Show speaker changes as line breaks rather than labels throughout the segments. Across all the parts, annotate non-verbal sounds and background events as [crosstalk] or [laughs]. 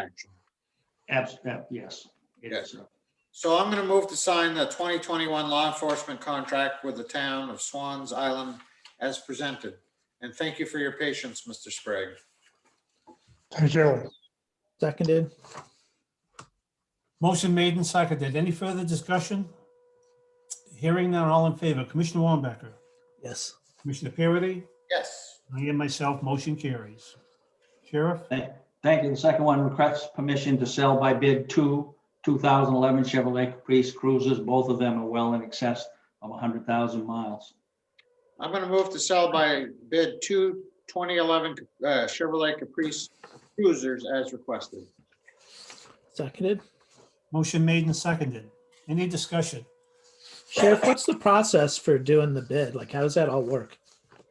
action.
Abstract, yes.
uh, Yes.
So I'm going to move to sign the 2021 law enforcement contract with the town of Swans Island as presented. And thank you for your patience, Mr. Sprague.
Thank you.
Seconded.
Motion made and seconded. Any further discussion? Hearing none, all in favor. Commissioner Wambacher,
Yes.
Commissioner Parity,
Yes,
I am myself, motion carries. Sheriff,
Thank you. The second one requests permission to sell by bid two 2011 Chevrolet Caprice Cruisers. Both of them are well in excess of 100,000 miles.
I'm going to move to sell by bid two 2011 uh, Chevrolet Caprice cruisers as requested.
Seconded.
motion made and seconded. Any discussion?
Sheriff, what's the process for doing the bid? Like, how does that all work?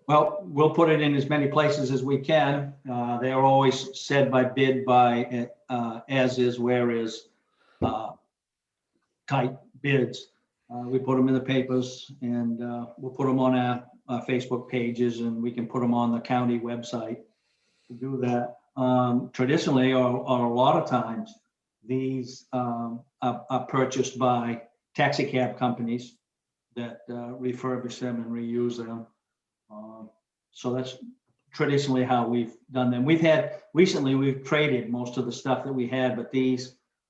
Well, we'll put it in as many places as we can. Uh, They are always said by bid by uh, as is, where is uh, type bids. Uh, We put them in the papers and uh, we'll put them on our our Facebook pages and we can put them on the county website to do that. Um, Traditionally, or or a lot of times, these um, are are purchased by taxi cab companies that uh, refurbish them and reuse them. Um, So that's traditionally how we've done them. We've had, recently, we've traded most of the stuff that we had, but these,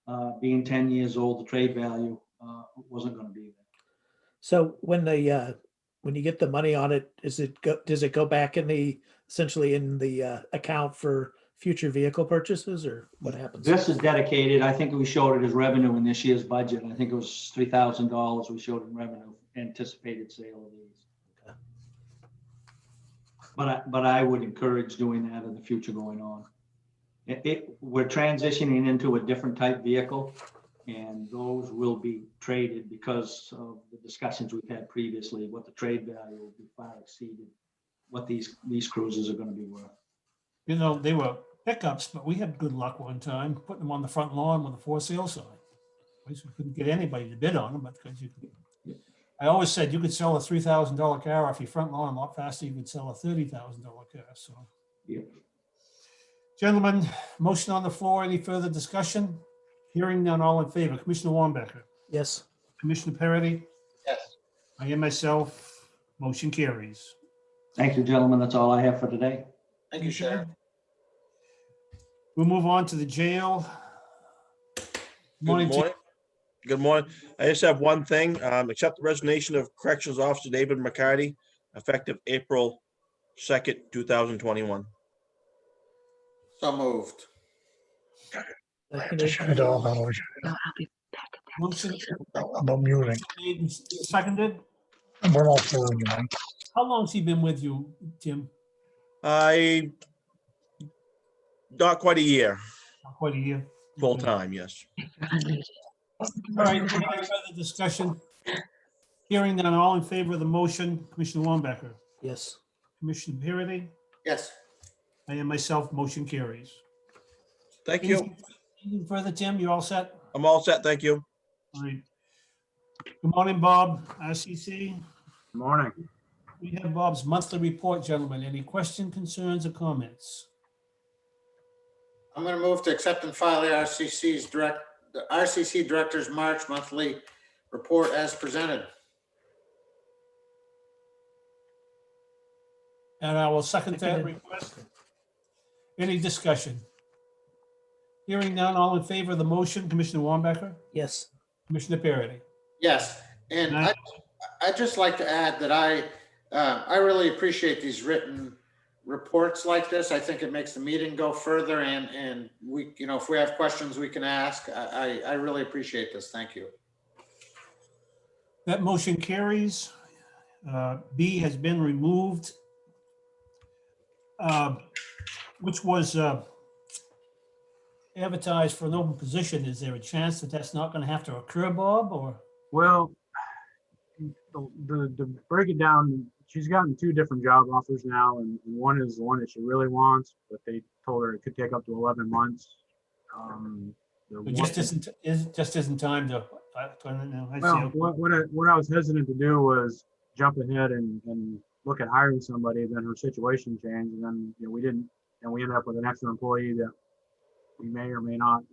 uh, being 10 years old, the trade value uh, wasn't going to be there.
So when the, uh, when you get the money on it, is it, go? does it go back in the, essentially in the, uh, account for future vehicle purchases or what happens?
This is dedicated, I think we showed it as revenue in this year's budget. I think it was $3,000 we showed in revenue, anticipated sale of these.
Okay.
But I, but I would encourage doing that in the future going on. It- It, we're transitioning into a different type vehicle and those will be traded because of the discussions we've had previously, what the trade value will be far exceeded, what these, these cruises are going to be worth.
You know, they were pickups, but we had good luck one time putting them on the front lawn with a for sale sign. At least we couldn't get anybody to bid on them, but because you could. I always said you could sell a three thousand dollar car off your front lawn a lot faster than you could sell a thirty thousand dollar car, so.
Yeah.
Gentlemen, motion on the floor. Any further discussion? Hearing none, all in favor. Commissioner Wambacher,
Yes.
Commissioner Parity,
Yes.
I am myself. Motion carries.
Thank you, gentlemen. That's all I have for today.
Thank you, Sheriff.
We'll move on to the jail.
Good
Tim.
morning. Good morning. I just have one thing, um, accept the resignation of Corrections Officer David McCarty effective April second, two thousand twenty-one.
So moved.
Seconded.
Shut it all down.
No, I'll be back at that.
Motion
I'm muting.
made and seconded.
I'm off the line, man.
How long's he been with you, Tim?
I not quite a year,
Not Quite a year.
full time, yes.
You're unmuted.
All right, any further discussion? Hearing none, all in favor of the motion, Commissioner Wambacher,
Yes.
Commissioner Parity,
Yes,
I am myself, motion carries.
Thank you.
Anything Further, Tim, you all set?
I'm all set. Thank you.
All right. Good morning, Bob, RCC.
Morning.
We have Bob's monthly report, gentlemen. Any question, concerns, or comments?
I'm going to move to accept and file the RCC's direct, the RCC Director's March monthly report as presented.
And I will second that
Seconded.
request. Any discussion? Hearing none, all in favor of the motion, Commissioner Wambacher,
Yes.
Commissioner Parity.
Yes, and I,
Nice.
I'd just like to add that I, uh, I really appreciate these written reports like this. I think it makes the meeting go further and, and we, you know, if we have questions, we can ask. I, I, I really appreciate this. Thank you.
That motion carries. Uh, B has been removed. uh, Which was uh, advertised for an open position. Is there a chance that that's not going to have to occur, Bob, or?
Well, the, the, to break it down, she's gotten two different job offers now, and one is the one that she really wants, but they told her it could take up to eleven months. Um, the
It just
one-
isn't, is, just isn't time to, I don't know. I
[laughs] Well,
see.
what, what I, what I was hesitant to do was jump ahead and, and look at hiring somebody, then her situation changed, and then, you know, we didn't, and we ended up with an extra employee that we may or may not